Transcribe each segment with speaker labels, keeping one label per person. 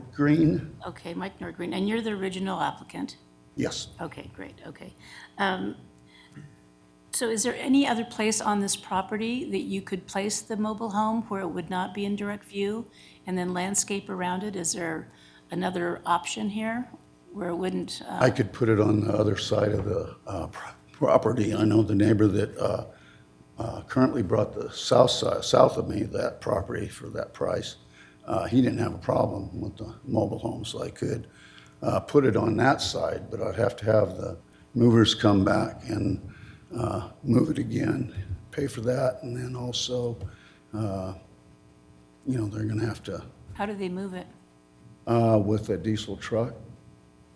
Speaker 1: Nordgreen?
Speaker 2: Okay, Mike Nordgreen, and you're the original applicant?
Speaker 1: Yes.
Speaker 2: Okay, great, okay. Um, So is there any other place on this property that you could place the mobile home where it would not be in direct view? And then landscape around it? Is there another option here where it wouldn't? uh,
Speaker 1: I could put it on the other side of the uh, pro- property. I know the neighbor that uh, uh, currently brought the south side, south of me, that property for that price. uh, He didn't have a problem with the mobile home, so I could uh, put it on that side, but I'd have to have the movers come back and uh, move it again, pay for that, and then also, uh, you know, they're gonna have to
Speaker 2: How do they move it?
Speaker 1: uh, with a diesel truck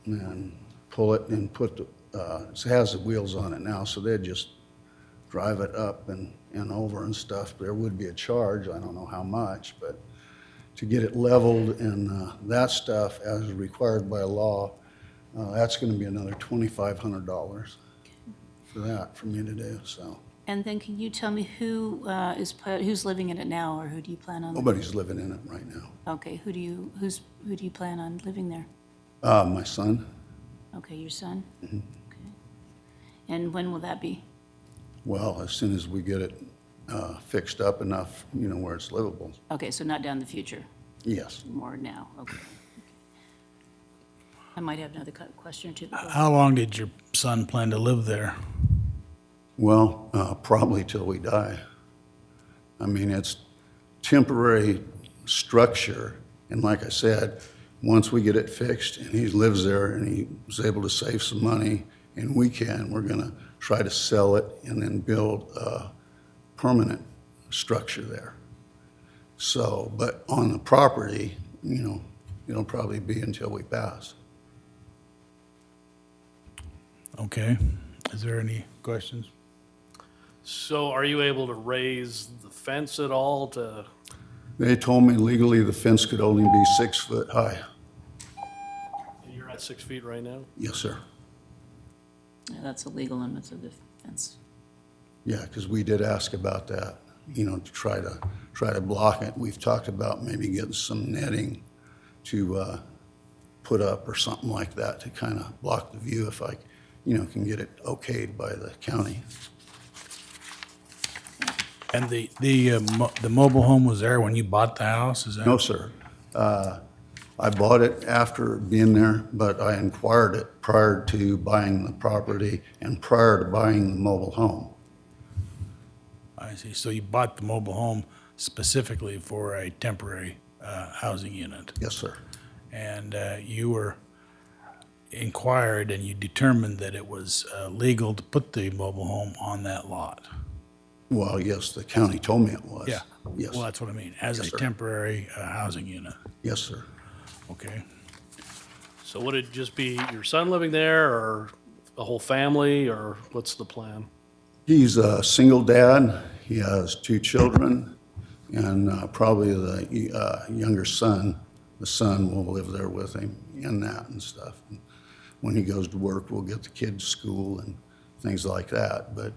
Speaker 1: and pull it and put, the uh, it has the wheels on it now, so they'd just drive it up and, and over and stuff. There would be a charge, I don't know how much, but to get it leveled and uh, that stuff as required by law, uh, that's going to be another $2,500 for that, for me to do, so.
Speaker 2: And then can you tell me who uh, is, pla- who's living in it now, or who do you plan on?
Speaker 1: Nobody's living in it right now.
Speaker 2: Okay, who do you, who's, who do you plan on living there?
Speaker 1: Uh, My son,
Speaker 2: Okay, your son? Okay. And when will that be?
Speaker 1: well, as soon as we get it uh, fixed up enough, you know, where it's livable,
Speaker 2: Okay, so not down the future,
Speaker 1: Yes.
Speaker 2: more now, okay. I might have another cu- question or two. but go ahead.
Speaker 3: How long did your son plan to live there?
Speaker 1: Well, uh, probably till we die. I mean, it's temporary structure, and like I said, once we get it fixed and he lives there and he was able to save some money, and we can, we're gonna try to sell it and then build a permanent structure there. So, but on the property, you know, it'll probably be until we pass.
Speaker 3: Okay. Is there any questions?
Speaker 4: So are you able to raise the fence at all to,
Speaker 1: They told me legally the fence could only be six foot high.
Speaker 4: you're at six feet right now?
Speaker 1: Yes, sir.
Speaker 2: Yeah, That's the legal limits of the fence.
Speaker 1: Yeah, because we did ask about that, you know, to try to, try to block it. We've talked about maybe getting some netting to uh, put up or something like that to kind of block the view if I, you know, can get it okayed by the county.
Speaker 3: And the, the, uh, mo- the mobile home was there when you bought the house, is that?
Speaker 1: No, sir. Uh, I bought it after being there, but I inquired it prior to buying the property and prior to buying the mobile home.
Speaker 3: I see. So you bought the mobile home specifically for a temporary, uh, housing unit?
Speaker 1: Yes, sir.
Speaker 3: And, uh, you were inquired and you determined that it was, uh, legal to put the mobile home on that lot?
Speaker 1: Well, yes, the county told me it was.
Speaker 3: Yeah.
Speaker 1: Yes,
Speaker 3: Well, that's what I mean, as a temporary, uh, housing unit,
Speaker 1: yes, sir.
Speaker 3: okay?
Speaker 4: So would it just be your son living there or a whole family or what's the plan?
Speaker 1: He's a single dad. He has two children, and uh, probably the uh, younger son, the son will live there with him and that and stuff. And when he goes to work, we'll get the kid to school and things like that. But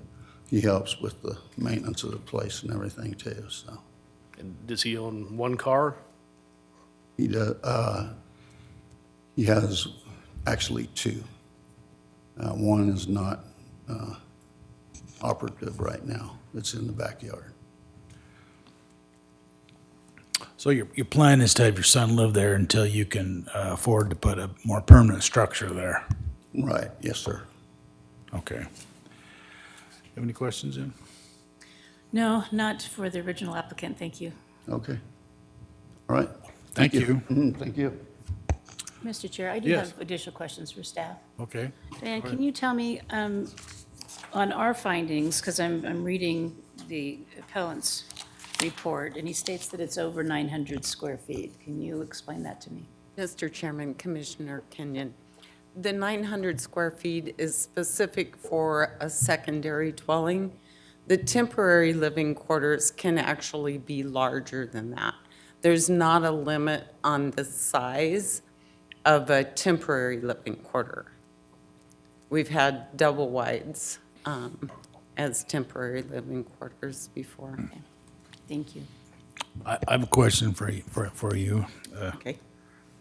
Speaker 1: he helps with the maintenance of the place and everything too. So
Speaker 4: And does he own one car?
Speaker 1: he does. Uh, he has actually two. Uh, one is not uh, operative right now. It's in the backyard.
Speaker 3: So your, your plan is to have your son live there until you can uh, afford to put a more permanent structure there?
Speaker 1: Right, yes, sir.
Speaker 3: Okay. Have any questions, Jim?
Speaker 2: No, not for the original applicant, thank you.
Speaker 1: Okay. All right.
Speaker 3: Thank you.
Speaker 1: Mhm, Thank you.
Speaker 2: Mr. Chair, I do
Speaker 3: Yes.
Speaker 2: have additional questions for staff.
Speaker 3: Okay.
Speaker 2: Diane, can you tell me, um, on our findings, because I'm, I'm reading the appellant's report, and he states that it's over 900 square feet. Can you explain that to me?
Speaker 5: Mr. Chairman, Commissioner Kenyon, the 900 square feet is specific for a secondary dwelling. The temporary living quarters can actually be larger than that. There's not a limit on the size of a temporary living quarter. We've had double wides um, as temporary living quarters before.
Speaker 2: Thank you.
Speaker 3: I, I have a question for you, for, for you. Uh,
Speaker 5: Okay.